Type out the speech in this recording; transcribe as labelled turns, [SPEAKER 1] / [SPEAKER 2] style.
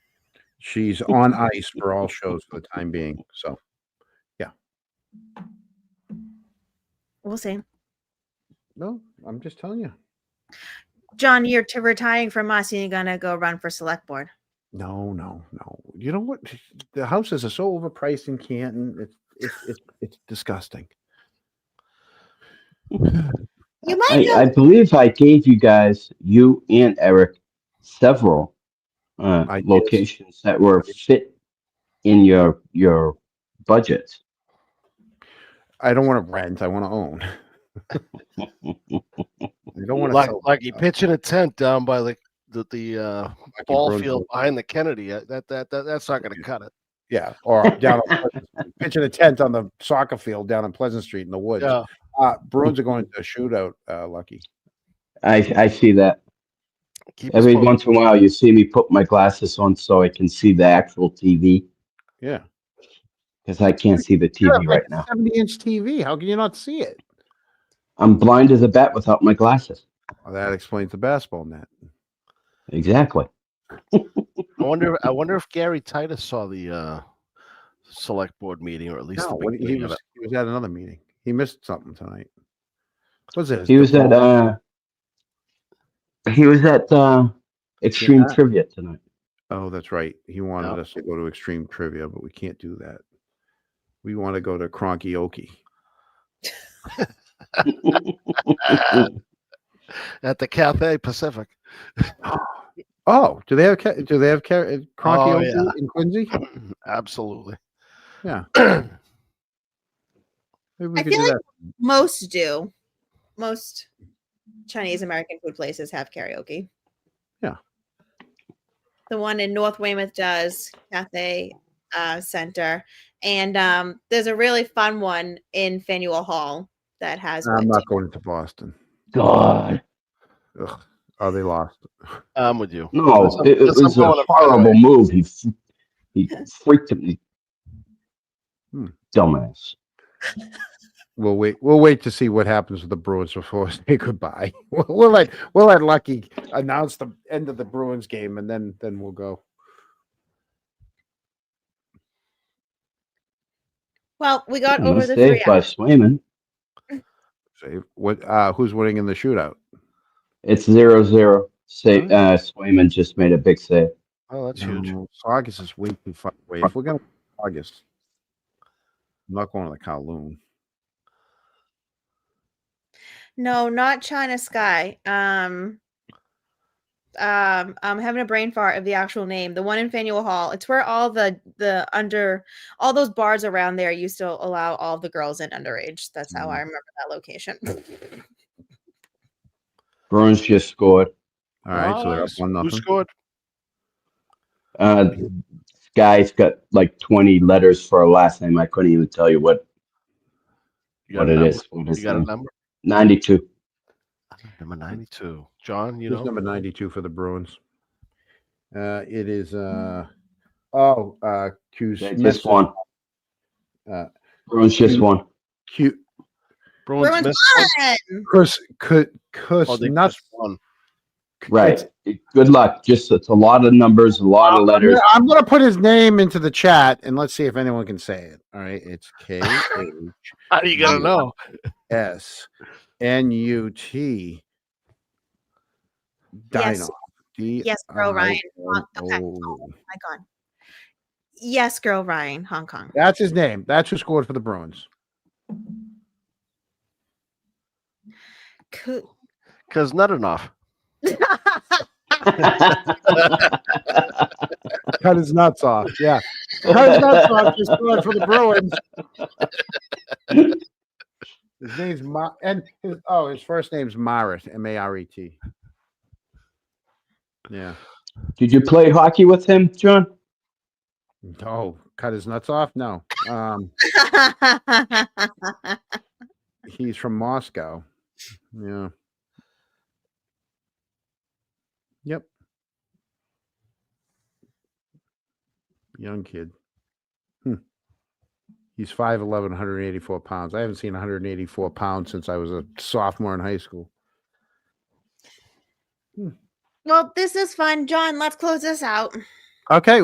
[SPEAKER 1] She's on ice for all shows for the time being. So
[SPEAKER 2] We'll see.
[SPEAKER 1] no, I'm just telling you.
[SPEAKER 2] John, you're t- retiring from us and you're going to go run for select board.
[SPEAKER 1] No, no, no. You know what? The houses are so overpriced in Canton. It's it's it's, it's disgusting.
[SPEAKER 2] You might
[SPEAKER 3] I,
[SPEAKER 2] go.
[SPEAKER 3] I believe I gave you guys, you and Eric, several uh,
[SPEAKER 1] I did.
[SPEAKER 3] locations that were fit in your your budget.
[SPEAKER 1] I don't want to rent. I want to own. I don't want to
[SPEAKER 4] Like,
[SPEAKER 1] sell
[SPEAKER 4] like he pitching a tent down by the the, the uh,
[SPEAKER 1] like a
[SPEAKER 4] ball
[SPEAKER 1] grown
[SPEAKER 4] field
[SPEAKER 1] folk.
[SPEAKER 4] behind the Kennedy. Uh, That that, that that's not going to cut it.
[SPEAKER 1] Yeah, or down on Pleasant Street. pitching a tent on the soccer field down on Pleasant Street in the woods.
[SPEAKER 4] Yeah,
[SPEAKER 1] Uh, Bruins are going to a shootout. Uh, lucky.
[SPEAKER 3] I, I see that.
[SPEAKER 4] keep us
[SPEAKER 3] Every
[SPEAKER 4] posted.
[SPEAKER 3] once in a while, you see me put my glasses on so I can see the actual TV
[SPEAKER 1] Yeah,
[SPEAKER 3] because I can't see the
[SPEAKER 1] You have
[SPEAKER 3] TV
[SPEAKER 1] like
[SPEAKER 3] right now.
[SPEAKER 1] Seventy-inch TV. How can you not see it?
[SPEAKER 3] I'm blind as a bat without my glasses.
[SPEAKER 1] Well, that explains the basketball net.
[SPEAKER 3] Exactly.
[SPEAKER 4] I wonder. I wonder if Gary Titus saw the uh, select board meeting, or at least
[SPEAKER 1] No,
[SPEAKER 4] the
[SPEAKER 1] what, he
[SPEAKER 4] beginning of
[SPEAKER 1] was
[SPEAKER 4] it.
[SPEAKER 1] he was at another meeting. He missed something tonight. What was it? his
[SPEAKER 3] He was at
[SPEAKER 1] divorce?
[SPEAKER 3] uh, he was at uh, Extreme
[SPEAKER 1] Yeah.
[SPEAKER 3] Trivia tonight.
[SPEAKER 1] Oh, that's right. He wanted
[SPEAKER 3] No.
[SPEAKER 1] us to go to extreme trivia, but we can't do that. We want to go to Cronky Okie.
[SPEAKER 4] at the Cathay Pacific.
[SPEAKER 1] Oh, do they have ca- do they have ca- uh, Cronky
[SPEAKER 4] Oh,
[SPEAKER 1] Okie in Quincy?
[SPEAKER 4] Absolutely.
[SPEAKER 1] Yeah. Maybe we
[SPEAKER 2] I
[SPEAKER 1] could
[SPEAKER 2] feel
[SPEAKER 1] do
[SPEAKER 2] like-
[SPEAKER 1] that.
[SPEAKER 2] most do. Most Chinese American food places have karaoke.
[SPEAKER 1] Yeah.
[SPEAKER 2] The one in North Weymouth does Cathay uh, Center, and um, there's a really fun one in Faneuil Hall that has.
[SPEAKER 1] I'm
[SPEAKER 2] one
[SPEAKER 1] not
[SPEAKER 2] too.
[SPEAKER 1] going to Boston.
[SPEAKER 3] God,
[SPEAKER 1] Ugh. Oh, they lost.
[SPEAKER 4] I'm with you.
[SPEAKER 3] no!
[SPEAKER 4] Listen,
[SPEAKER 3] It, it
[SPEAKER 4] listen,
[SPEAKER 3] was
[SPEAKER 4] I'm
[SPEAKER 3] a
[SPEAKER 4] going to-
[SPEAKER 3] horrible move. He f- he freaked him.
[SPEAKER 1] Hmm.
[SPEAKER 3] Dumbass.
[SPEAKER 1] We'll wait. We'll wait to see what happens with the Bruins before we say goodbye. We'll, we'll let we'll let Lucky announce the end of the Bruins game, and then then we'll go.
[SPEAKER 2] Well, we got
[SPEAKER 3] It
[SPEAKER 2] over
[SPEAKER 3] was
[SPEAKER 2] the three.
[SPEAKER 3] saved by
[SPEAKER 2] hours.
[SPEAKER 3] Swayman.
[SPEAKER 1] Say what? Uh, who's winning in the shootout?
[SPEAKER 3] It's zero zero. Say,
[SPEAKER 1] Alright.
[SPEAKER 3] uh, Swayman just made a big save.
[SPEAKER 4] Oh, that's huge.
[SPEAKER 1] No, August is way too far away. If we're going to August, I'm not going to the Kowloon.
[SPEAKER 2] No, not China Sky. Um, um, I'm having a brain fart of the actual name. The one in Faneuil Hall. It's where all the the under all those bars around there used to allow all the girls in underage. That's how I remember that location.
[SPEAKER 3] Bruins just scored.
[SPEAKER 1] All right, so they're up
[SPEAKER 4] Nice.
[SPEAKER 1] one
[SPEAKER 4] Who
[SPEAKER 1] nothing.
[SPEAKER 4] scored?
[SPEAKER 3] Uh, guy's got like twenty letters for a last name. I couldn't even tell you what
[SPEAKER 4] You got
[SPEAKER 3] what
[SPEAKER 4] a
[SPEAKER 3] it
[SPEAKER 4] number?
[SPEAKER 3] is. What
[SPEAKER 4] You
[SPEAKER 3] is
[SPEAKER 4] got a
[SPEAKER 3] it?
[SPEAKER 4] number?
[SPEAKER 3] Ninety-two.
[SPEAKER 4] Number 92. John, you
[SPEAKER 1] Who's
[SPEAKER 4] know.
[SPEAKER 1] number ninety-two for the Bruins? Uh, it is uh
[SPEAKER 4] Hmm.
[SPEAKER 1] oh uh Q
[SPEAKER 3] They
[SPEAKER 1] Smith-
[SPEAKER 3] just won.
[SPEAKER 1] Uh,
[SPEAKER 3] Bruins just
[SPEAKER 1] Q-
[SPEAKER 3] won.
[SPEAKER 1] Q
[SPEAKER 4] Bruins,
[SPEAKER 2] Bruins
[SPEAKER 4] missed
[SPEAKER 2] Fun!
[SPEAKER 1] Chris could Chris
[SPEAKER 4] Oh, they
[SPEAKER 1] nuts
[SPEAKER 4] missed one.
[SPEAKER 3] Right. Good luck. Just it's a lot of numbers, a lot of letters.
[SPEAKER 1] I'm gonna put his name into the chat and let's see if anyone can say it. All right, it's K H
[SPEAKER 4] How are you going to know?
[SPEAKER 1] S N U T.
[SPEAKER 2] Yes.
[SPEAKER 1] Dino. D
[SPEAKER 2] Yes, Earl
[SPEAKER 1] I
[SPEAKER 2] Ryan.
[SPEAKER 1] N
[SPEAKER 2] Okay.
[SPEAKER 1] O.
[SPEAKER 2] My God. Yes, girl Ryan, Hong Kong.
[SPEAKER 1] That's his name. That's who scored for the Bruins.
[SPEAKER 2] Cool.
[SPEAKER 4] Because not enough.
[SPEAKER 1] Cut his nuts off. Yeah. Cut his nuts off. Just scored for the Bruins. His name's Ma- and his, oh, his first name's Maret, M A R E T. Yeah.
[SPEAKER 3] Did you play hockey with him, John?
[SPEAKER 1] Oh, cut his nuts off? No. Um, he's from Moscow. Yeah. Yep. Young kid. Hmm. He's 5'11, 184 pounds. I haven't seen 184 pounds since I was a sophomore in high school.
[SPEAKER 2] well, this is fun. John, let's close this out.
[SPEAKER 1] Okay.